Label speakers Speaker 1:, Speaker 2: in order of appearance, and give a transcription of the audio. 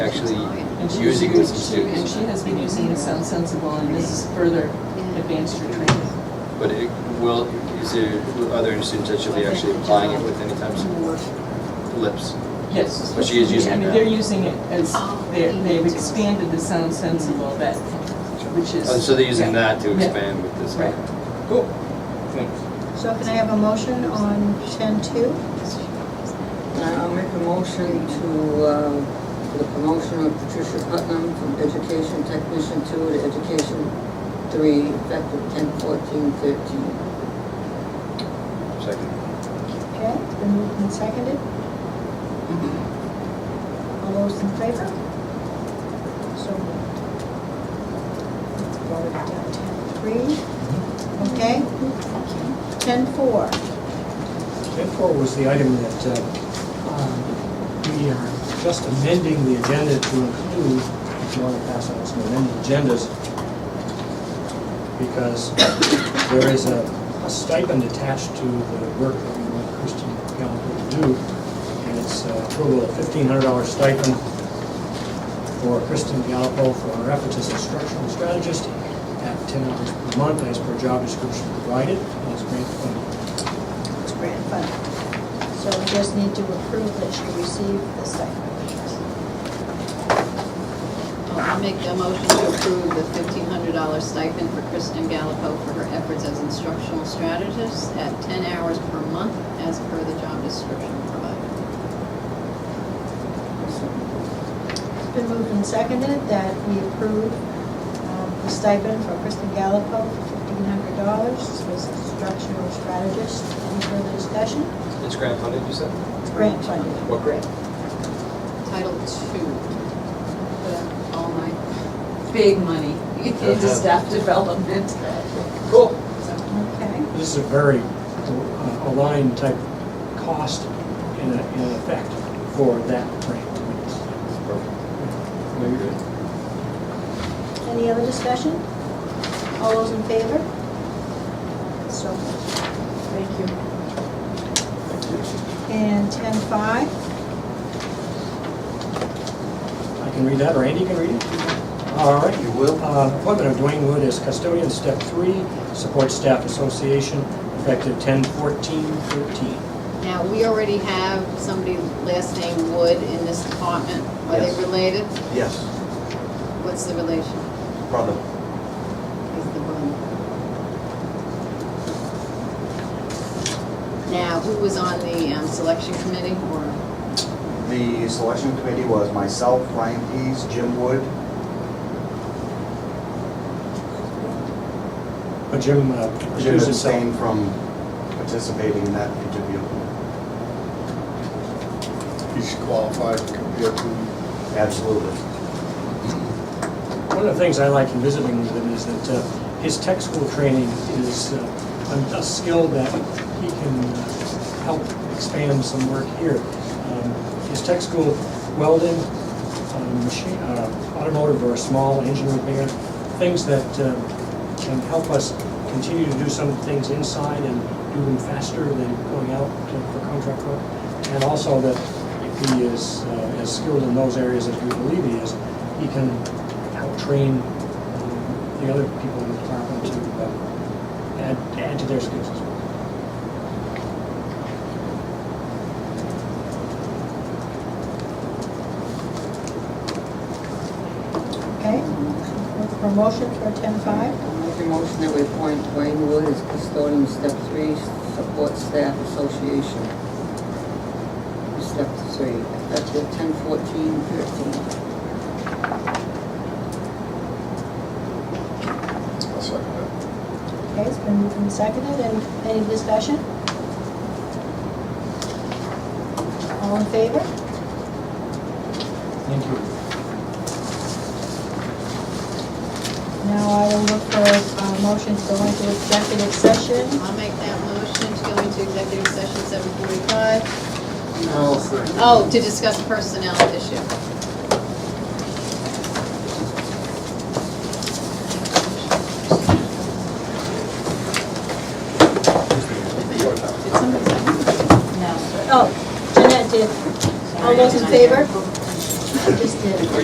Speaker 1: actually
Speaker 2: And she-
Speaker 1: using with some
Speaker 2: she- And
Speaker 1: students.
Speaker 2: she has been using it, sounds sensible, and this is further advanced your training.
Speaker 1: But it will, is there, are there any students that she'll be actually applying it with any time soon?
Speaker 3: Um,
Speaker 1: Lips.
Speaker 2: Yes.
Speaker 1: But she is using
Speaker 2: I mean,
Speaker 1: it now.
Speaker 2: they're using it as, they're- they've expanded the sound sensible that, which is.
Speaker 1: Oh, So they're using that to
Speaker 2: Yeah.
Speaker 1: expand with this.
Speaker 2: Right.
Speaker 1: Cool. Thanks.
Speaker 4: So can I have a motion on ten two?
Speaker 5: I'll make a motion to, um, for the promotion of Patricia Putnam from education technician two to education three, effective ten fourteen thirteen.
Speaker 1: Second.
Speaker 4: Okay, it's been moved and seconded. All those in favor? So moved. Voted down ten three, okay? Ten four,
Speaker 6: Ten four was the item that uh, um, we are just amending the agenda to include, if you want to pass out some amended agendas, because there is a a stipend attached to the work that we want Christian Gallagher to do, and it's a total of fifteen hundred dollar stipend for Kristen Galpo for her efforts as instructional strategist at ten hours per month as per job description provided, and it's grant funded.
Speaker 4: it's grant funded. So we just need to approve that she received the stipend.
Speaker 3: I'll make a motion to approve the fifteen hundred dollar stipend for Kristen Gallipo for her efforts as instructional strategist at ten hours per month as per the job description provided.
Speaker 4: It's been moved and seconded that we approve um, the stipend for Kristen Gallipo for fifteen hundred dollars. This was instructional strategist. Any further discussion?
Speaker 1: It's grant funded, you said?
Speaker 4: It's grant funded.
Speaker 1: What grant?
Speaker 3: Title two, but all my,
Speaker 2: Big money into staff development.
Speaker 1: Cool.
Speaker 4: Okay.
Speaker 6: This is a very uh, aligned type cost in, a- in effect for that grant.
Speaker 1: Very good.
Speaker 4: Any other discussion? All those in favor? So moved. Thank you. And ten five,
Speaker 6: I can read that, or Andy can read it? All right. You will. Appointment of Dwayne Wood as custodian, step three, support staff association, effective 10/14/13.
Speaker 3: now, we already have somebody last name Wood in this department. Are they
Speaker 7: Yes.
Speaker 3: related?
Speaker 7: Yes,
Speaker 3: What's the relation?
Speaker 7: brother.
Speaker 3: is the one. Now, who was on the um, selection committee or,
Speaker 7: The selection committee was myself, Ryan Pease, Jim Wood.
Speaker 6: But Jim uh,
Speaker 7: Jim
Speaker 6: recused himself.
Speaker 7: abstained from participating in that interview.
Speaker 8: he's qualified compared to
Speaker 7: Absolutely.
Speaker 6: One of the things I like in visiting with him is that uh, his tech school training is uh, a a skill that he can uh, help expand some work here. Um, His tech school welding, um, machine, uh, automotive or small engine repair, things that um, can help us continue to do some things inside and do them faster than going out to- for contract work. And also that if he is uh, as skilled in those areas as we believe he is, he can help train um, the other people in the department to uh, add, add to their skills as well.
Speaker 4: okay? Look for a motion for ten five.
Speaker 5: I'll make a motion that we appoint Dwayne Wood as custodian, step three, support staff association. Step three, effective 10/14/13.
Speaker 4: Okay, it's been moved and seconded, and any discussion? All in favor?
Speaker 6: Thank you.
Speaker 4: Now I will look for a uh, motion to go into executive session.
Speaker 3: I'll make that motion to go into executive session seven forty-five.
Speaker 5: No,
Speaker 3: Oh, to discuss personnel issue. Did somebody second?
Speaker 4: Oh, Jeanette did. All those in favor?